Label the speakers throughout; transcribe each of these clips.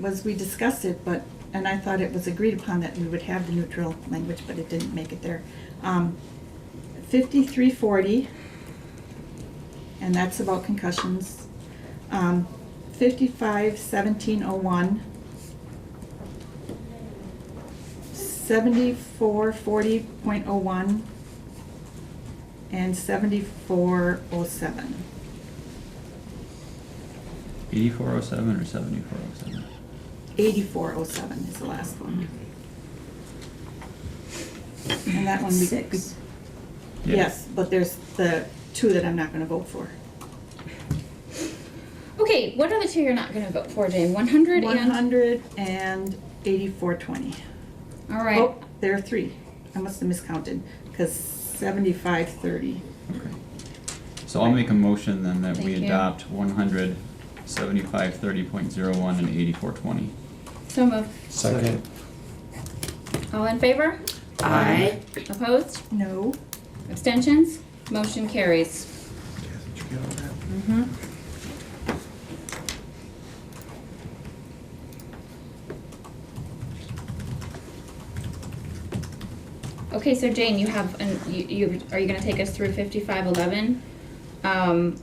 Speaker 1: was we discussed it, but, and I thought it was agreed upon that we would have the neutral language, but it didn't make it there. Um, fifty-three forty, and that's about concussions. Um, fifty-five seventeen oh one. Seventy-four forty point oh one. And seventy-four oh seven.
Speaker 2: 8407 or 7407?
Speaker 1: Eighty-four oh seven is the last one. And that one we.
Speaker 3: Six.
Speaker 1: Yes, but there's the two that I'm not gonna vote for.
Speaker 3: Okay, what are the two you're not gonna vote for, Jane? One hundred
Speaker 1: One
Speaker 3: and,
Speaker 1: hundred and eighty-four twenty.
Speaker 3: alright,
Speaker 1: Oh, There are three. I must have miscounted, cause seventy-five thirty.
Speaker 2: Okay. So I'll make a motion then that we
Speaker 3: Thank you.
Speaker 2: adopt 100, 7530.01 and 8420.
Speaker 3: so moved.
Speaker 4: Second.
Speaker 3: All in favor?
Speaker 5: Aye.
Speaker 3: Opposed?
Speaker 1: No,
Speaker 3: Abstentions? Motion carries.
Speaker 1: Mm-hmm.
Speaker 3: Okay, so Jane, you have, an- you, you, are you gonna take us through fifty-five eleven? Um,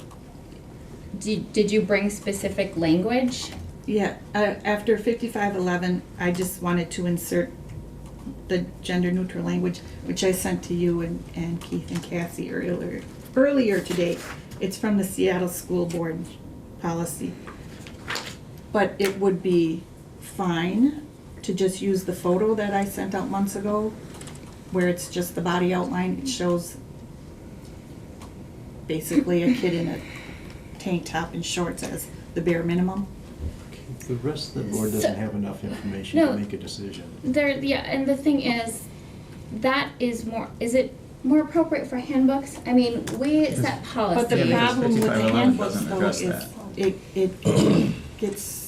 Speaker 3: did, did you bring specific language?
Speaker 1: yeah, uh, after fifty-five eleven, I just wanted to insert the gender-neutral language, which I sent to you and, and Keith and Cassie earlier, earlier today. It's from the Seattle School Board policy. But it would be fine to just use the photo that I sent out months ago, where it's just the body outline, it shows basically a kid in a tank top and shorts as the bare minimum.
Speaker 4: The rest of the board
Speaker 3: So-
Speaker 4: doesn't have enough information to
Speaker 3: No.
Speaker 4: make a decision.
Speaker 3: There, yeah, and the thing is, that is more, is it more appropriate for handbooks? I mean, we set policy.
Speaker 1: But the
Speaker 2: Yeah, because
Speaker 1: problem with the
Speaker 2: 5511
Speaker 1: handbooks
Speaker 2: doesn't
Speaker 1: though
Speaker 2: address
Speaker 1: is
Speaker 2: that.
Speaker 1: it, it gets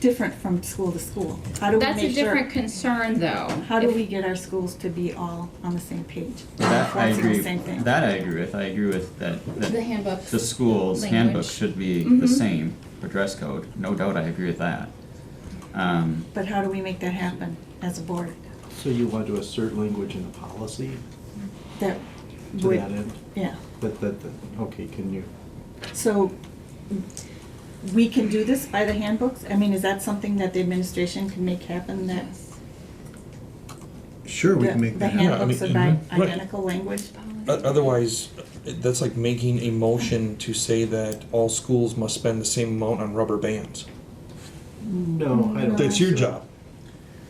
Speaker 1: different from school to school. How do we
Speaker 3: That's a
Speaker 1: make sure?
Speaker 3: different concern, though.
Speaker 1: How do we get our schools to be all on the same page?
Speaker 2: That I
Speaker 1: Enforcing the
Speaker 2: agree,
Speaker 1: same thing.
Speaker 2: that I agree with. I agree with that,
Speaker 3: The
Speaker 2: that
Speaker 3: handbooks.
Speaker 2: the school's
Speaker 3: language.
Speaker 2: handbook should be the
Speaker 1: Mm-hmm.
Speaker 3: Mhm.
Speaker 2: same for dress code. No doubt, I agree with that. Um,
Speaker 1: But how do we make that happen as a board?
Speaker 4: So you want to assert language in the policy
Speaker 1: That
Speaker 4: to
Speaker 1: would,
Speaker 4: that end?
Speaker 1: yeah.
Speaker 4: But that, that- okay, can you,
Speaker 1: So we can do this by the handbooks? I mean, is that something that the administration can make happen that
Speaker 3: Yes.
Speaker 6: Sure, we
Speaker 1: the
Speaker 6: can make
Speaker 1: the
Speaker 6: that happen. mm-hmm.
Speaker 1: handbooks
Speaker 7: I
Speaker 1: are
Speaker 7: mean,
Speaker 1: by
Speaker 7: mhm. Right.
Speaker 1: identical language?
Speaker 7: O- Otherwise, it- that's like making a motion to say that all schools must spend the same amount on rubber bands.
Speaker 4: no, I don't.
Speaker 7: That's your
Speaker 4: think so.
Speaker 7: job,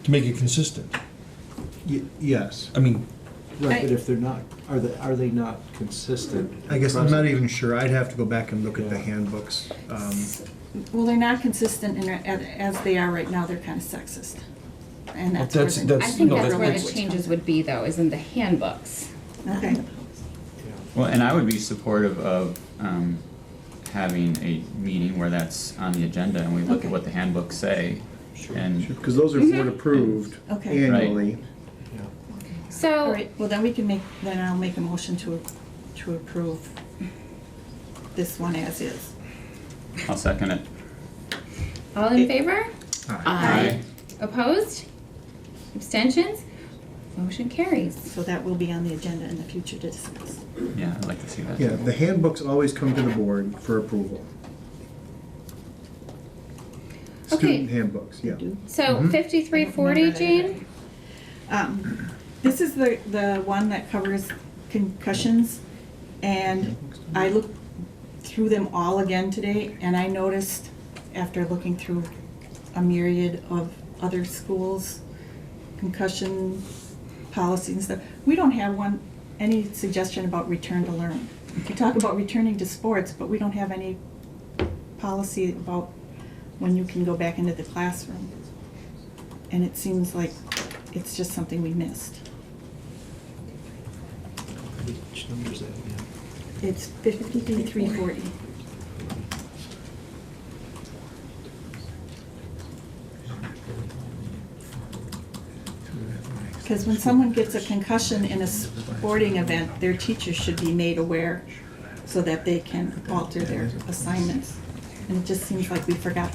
Speaker 7: to make it consistent.
Speaker 6: Y- Yes.
Speaker 7: I mean,
Speaker 4: Right, but if they're not, are they, are they not consistent?
Speaker 6: I guess I'm not
Speaker 4: Present.
Speaker 6: even sure. I'd have to go back and look at the
Speaker 4: Yeah.
Speaker 6: handbooks. Um,
Speaker 1: Well, they're not consistent in, as they are right now, they're kind of sexist. And that's where
Speaker 7: That's-
Speaker 1: the.
Speaker 3: I
Speaker 7: that's-
Speaker 3: think
Speaker 7: No,
Speaker 3: that's
Speaker 7: that's-
Speaker 3: where the
Speaker 1: language
Speaker 3: changes
Speaker 1: comes.
Speaker 3: would be, though, is in the handbooks.
Speaker 1: Okay,
Speaker 4: Yeah.
Speaker 2: Well, and I would be supportive of um, having a meeting where that's on the agenda and we look
Speaker 1: Okay.
Speaker 2: at what the handbooks say. And
Speaker 6: Because those are board approved
Speaker 1: Mm-hmm. okay.
Speaker 6: annually.
Speaker 4: Yeah.
Speaker 1: All
Speaker 3: So,
Speaker 1: right, well, then we can make, then I'll make a motion to, to approve this one as is.
Speaker 2: I'll second it.
Speaker 3: all in favor?
Speaker 5: Aye.
Speaker 3: Opposed? Abstentions? Motion carries.
Speaker 1: So that will be on the agenda in the future to discuss.
Speaker 2: Yeah, I'd like to see that.
Speaker 6: Yeah, the handbooks always come to the board for approval.
Speaker 3: Okay.
Speaker 6: Student handbooks, yeah.
Speaker 3: So fifty-three
Speaker 1: I
Speaker 3: forty,
Speaker 1: remember that.
Speaker 3: Jane?
Speaker 1: Um, This is the, the one that covers concussions, and I looked through them all again today, and I noticed, after looking through a myriad of other schools' concussion policies and stuff, we don't have one, any suggestion about return to learn. We talk about returning to sports, but we don't have any policy about when you can go back into the classroom. And it seems like it's just something we missed.
Speaker 4: Which number is that again?
Speaker 1: It's fifty-three forty. Because when someone gets a concussion in a sporting event, their teacher should be made aware so that they can alter their assignments. and it just seems like we forgot